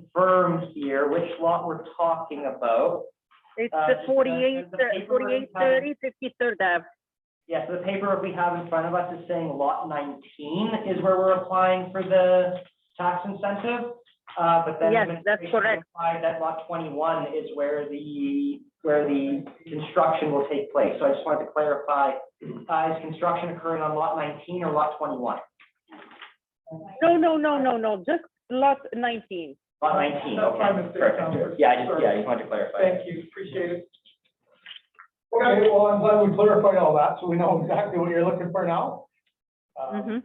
confirm here which lot we're talking about. It's Uh, the just, uh, 48, the paper 4830, 53rd Ave. Yes, the paper we have in front of us is saying lot nineteen is where we're applying for the tax incentive. Uh, but then. Yes, that's administration correct. implied that lot twenty-one is where the, where the construction will take place. So I just wanted to clarify, uh, is construction occurring on lot nineteen or lot twenty-one? No, no, no, no, no, just lot 19. Lot nineteen, That's my okay. mistake, Tom. Perfect. Yeah, I just, yeah, I just wanted to clarify. Thank you, appreciate it. Okay, well, I'm glad we clarified all that, so we know exactly what you're looking for now. Um, Mhm.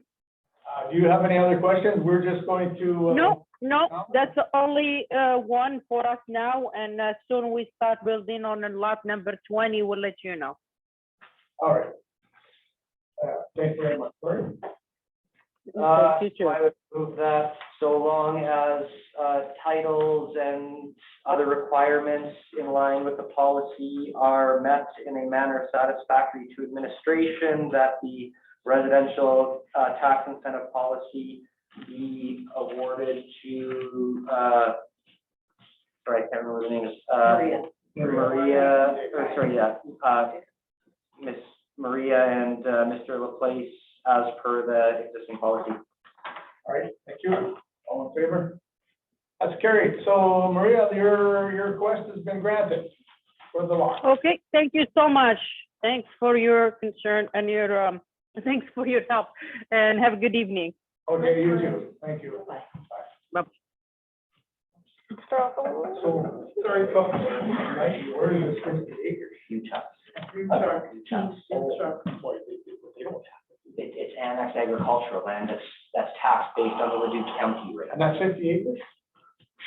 Uh, do you have any other questions? We're just going to. uh, No, no, no? that's the only uh, one for us now, and as soon we start building on a lot number 20, we'll let you know. All right. Uh, thank you very much, Cory. Uh, Thank you, so Chair. I would move that so long as, uh, titles and other requirements in line with the policy are met in a manner satisfactory to administration, that the residential, uh, tax incentive policy be awarded to, uh, sorry, I can't remember the name, uh, Maria, or sorry, yeah, uh, Miss Maria and, uh, Mr. Laplace as per the existing policy. All right, thank you. All in favor? That's carried. So Maria, your, your request has been granted for the lot. Okay, thank you so much. Thanks for your concern and your, um, thanks for your help, and have a good evening. Okay, you too. Thank you. So, sorry, folks. Right, where is this fifty acres? Utah. Utah. Utah. Boy, they- they- they don't have It, it's annexed agricultural land that's, that's taxed based on the Leduc County it. rate. And that's fifty acres?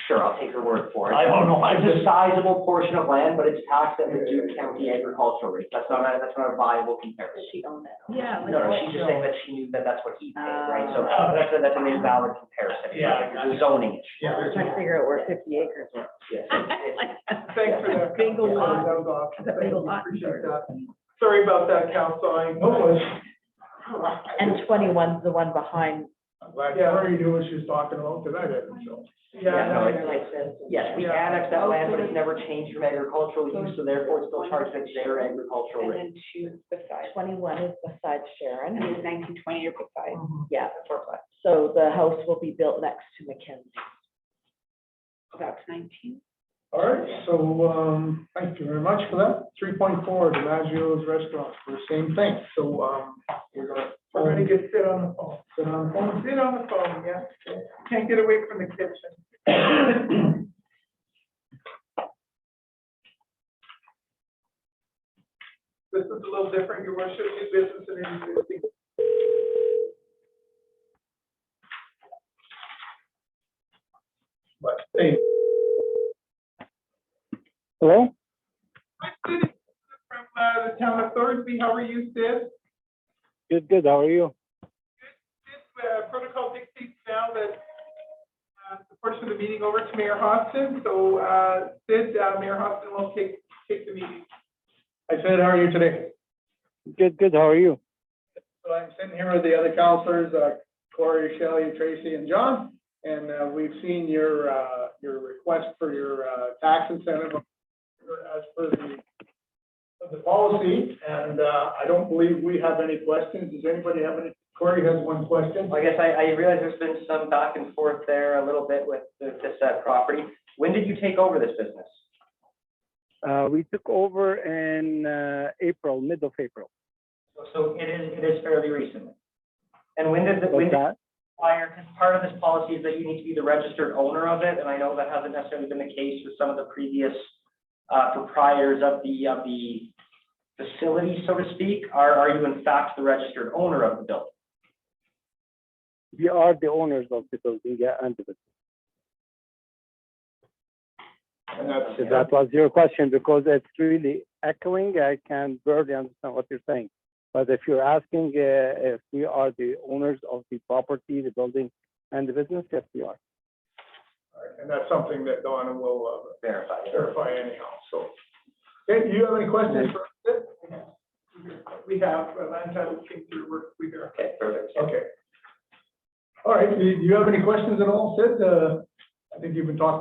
Sure, I'll take your word for it. I don't know. I It's a just- sizable portion of land, but it's taxed at Leduc County agricultural rate. That's not, a- that's not a viable comparison. She owned that. No, no, she's just saying that she knew that that's what he paid, right? So uh, Ah. that's, a- that's an invalid comparison. Yeah, I got You're zoning it. Yeah. I'm trying to figure out where fifty acres were. Yes. Thanks for that. Big counsel. lot. That was awesome. Big Thank you. lot. Appreciate that. Sorry about that, council. I know it's. And twenty-one's the one behind. I'm glad Cory knew what she was talking about, because I didn't, so. Yeah, no, it's- Yes, we Yeah. annexed that land, but it's never changed from agricultural use, so therefore it's still charged at their agricultural rate. And then two beside, Twenty-one is beside and Sharon. then nineteen twenty are beside. Yeah. So the house will be built next to Mackenzie. That's nineteen. All right, so, um, thank you very much for that. Three point four, DiMaggio's Restaurant, for the same thing, so, um, we're gonna. We're gonna get sit on the phone. Sit on the phone? Sit on the phone, yeah. Can't get away from the kitchen. This is a little different, your worship, new business and existing. But, hey, Hello? Hi, Sid. It's From uh, the town of Thorsby, how are you, Sid? Good, good. How are you? Sid, uh, protocol dictates now that uh, the portion of the meeting over to Mayor Hobson, so uh, Sid, uh, Mayor Hobson will take, take the meeting. I said, how are you today? Good, good. How are you? So I'm sitting here with the other counselors, uh, Corey, Shelley, Tracy, and John, and uh, we've seen your, uh, your request for your uh, tax incentive as per the, of the policy, and uh, I don't believe we have any questions. Does anybody have any? Corey has one question. I guess I, I realize there's been some back and forth there a little bit with the- this uh, property. When did you take over this business? Uh, we took over in uh, April, mid of April. So it is, it is fairly recently. And when did, the- when What's did that? prior, because part of this policy is that you need to be the registered owner of it, and I know that hasn't necessarily been the case with some of the previous uh, proprietors of the, of the facility, so to speak. Are, are you in fact the registered owner of the building? We are the owners of the building, yeah, and the business. And that's- If that was your question, because it's really echoing. I can barely understand what you're saying. But if you're asking uh, if we are the owners of the property, the building, and the business, yes, we are. And that's something that Donna will uh, Verify it. clarify anyhow, so. Okay, do you have any questions for us? We have, uh, land title came through, we're, we are. Okay, perfect. Okay. All right, do you do you have any questions at all, Sid? Uh, I think you've been talking